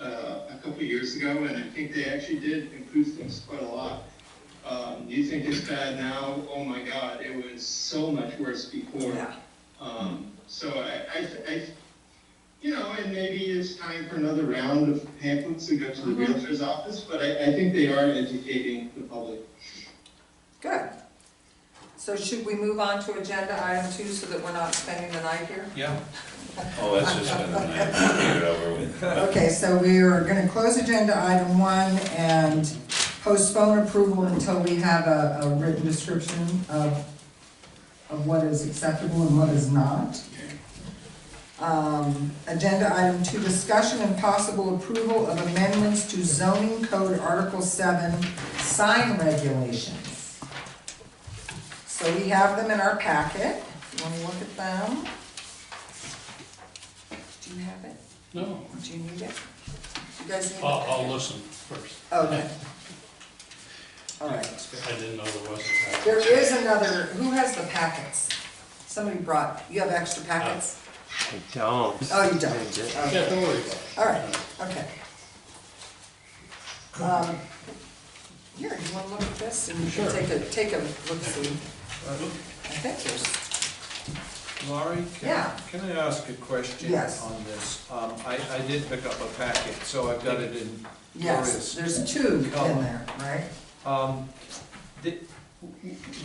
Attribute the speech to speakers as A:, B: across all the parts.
A: uh, couple years ago, and I think they actually did improve things quite a lot. Um, you think it's bad now? Oh my God, it was so much worse before.
B: Yeah.
A: Um, so I, I, I, you know, and maybe it's time for another round of pamphlets to go to the realtor's office, but I, I think they are educating the public.
B: Good. So should we move on to agenda item two so that we're not spending the night here?
C: Yeah.
D: Oh, that's just been, get it over with.
B: Okay, so we are gonna close agenda item one and postpone approval until we have a, a written description of, of what is acceptable and what is not. Um, agenda item two, discussion and possible approval of amendments to zoning code article seven, sign regulations. So we have them in our packet, If you wanna look at them? Do you have it?
C: No,
B: Do you need it? You guys need it?
C: I'll, I'll listen first.
B: Okay. All right.
C: I didn't know there was a package.
B: There is another, who has the packets? Somebody brought, you have extra packets?
E: I don't.
B: Oh, you don't.
E: I did-
C: Uh, Yeah, don't worry about it.
B: All right, okay. Um, Here, you wanna look at this and you can
C: Sure.
B: take a, take a look-see? I think there's,
F: Uh, Laurie, can,
B: Yeah.
F: can I ask a question
B: Yes.
F: on this? Um, I, I did pick up a packet, so I've got it in
B: yes,
F: Gloria's.
B: there's two in there, right?
F: Um, the-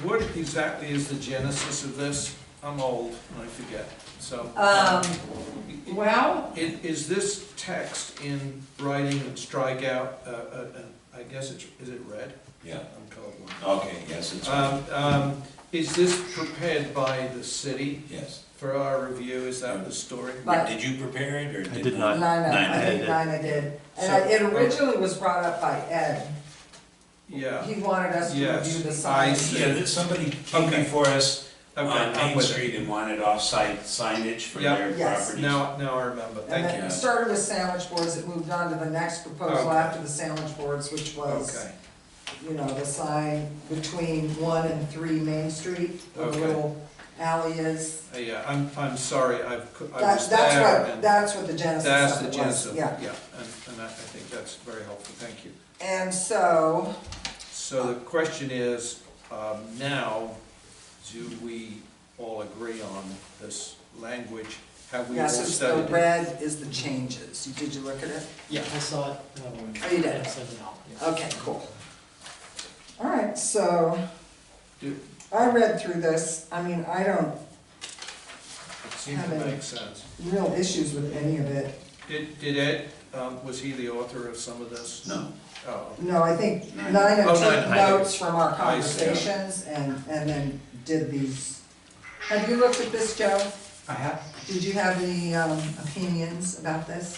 F: what exactly is the genesis of this? I'm old and I forget, so.
B: Um, well,
F: Is, is this text in writing and strikeout, uh, uh, uh, I guess it's, is it red?
D: Yeah,
F: I'm colorblind.
D: okay, yes, it's,
F: Um, um, is this prepared by the city
D: yes.
F: for our review? Is that the story?
B: But-
D: Did you prepare it or did?
E: I did not.
B: Nina, I
D: Nina
B: think
E: did.
B: Nina did. And I- it originally was brought up by Ed.
F: Yeah.
B: He wanted us to
F: Yes,
B: review the
F: I
B: signs.
F: see.
D: Yeah, that somebody came
F: Okay.
D: before us
F: Okay,
D: on
F: I'm
D: Main
F: with it.
D: Street and wanted off-site signage for
F: Yeah.
D: their
B: Yes.
D: properties.
F: Now, now I remember,
B: And
F: thank
B: then
F: you.
B: it started with sandwich boards, it moved on to the next proposal
F: Okay.
B: after the sandwich boards, which was,
F: Okay,
B: you know, the sign between one and three Main Street, where the
F: Okay.
B: little alley is.
F: Uh, yeah, I'm, I'm sorry, I've, cou- I
B: That's,
F: was
B: that's
F: there
B: what,
F: and
B: that's what the genesis
F: that's
B: of
F: the
B: it
F: genesis,
B: was,
F: of it,
B: yeah.
F: yeah, and, and I, I think that's very helpful, thank you.
B: And so,
F: So the question is, um, now, do we all agree on this language? Have we
B: yeah,
F: all
B: so it's the
F: studied it?
B: red is the changes, did you look at it?
C: Yeah.
G: I saw it. and
C: uh,
G: I wanted-
B: Oh, you did?
G: I sent it out, yeah.
B: Okay, cool. All right, so,
F: Do-
B: I read through this, I mean, I don't,
F: It seems to
B: Haven't.
F: make sense.
B: real issues with any of it.
F: Did, did Ed, um, was he the author of some of this?
D: No,
F: Oh,
B: No, I think
D: Nine.
B: Nina
F: Oh,
B: took
F: nine.
B: notes from our
F: I see.
B: conversations and, and then did these. Have you looked at this, Joe?
H: I have,
B: Did you have any, um, opinions about this?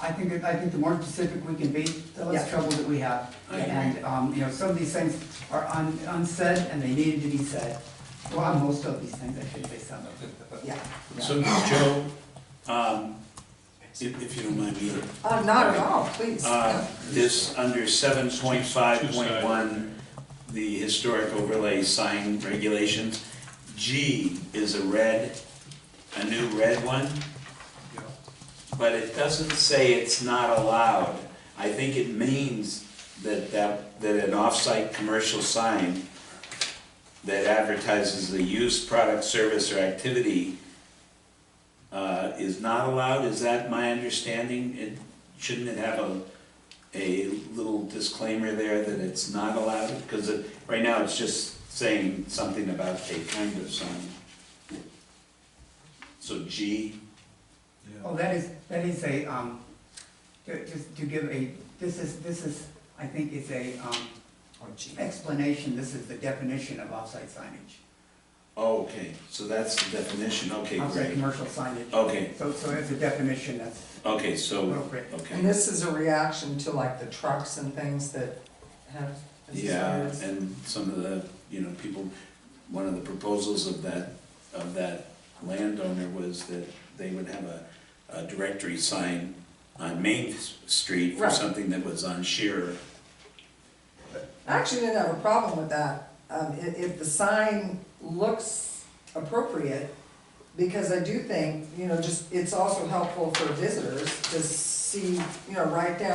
H: I think, that- I think the more specific we can be, the less
B: Yeah.
H: trouble that we have.
D: I agree.
H: And, um, you know, some of these things are un- unsaid and they needed to be said. Well, most of these things, I should say some of them.
B: Yeah.
D: so Joe, um, if, if you don't mind me,
B: Uh, not at all, please.
D: uh, this, under seven point five point one, the historic overlay sign regulations, G is a red, a new red one.
F: yeah.
D: But it doesn't say it's not allowed. I think it means that, that, that an off-site commercial sign that advertises the use, product, service, or activity uh, is not allowed, is that my understanding? It, shouldn't it have a, a little disclaimer there that it's not allowed? Because it, right now, it's just saying something about a kind of sign. So G,
F: Yeah.
H: Oh, that is, that is a, um, ju- just to give a, this is, this is, I think it's a, um,
B: Oh, gee.
H: explanation, this is the definition of offsite signage.
D: Oh, okay, so that's the definition, okay,
H: Offsite
D: great.
H: commercial signage.
D: Okay,
H: So, so it's a definition that's
D: okay, so,
H: appropriate.
B: And
D: okay,
B: this is a reaction to like the trucks and things that have.
D: yeah, and some of the, you know, people, one of the proposals of that, of that landowner was that they would have a, a directory sign on Main S- Street for
B: Right.
D: something that was on Shearer.
B: I actually didn't have a problem with that, um, if, if the sign looks appropriate, because I do think, you know, just, it's also helpful for visitors to see, you know, right down.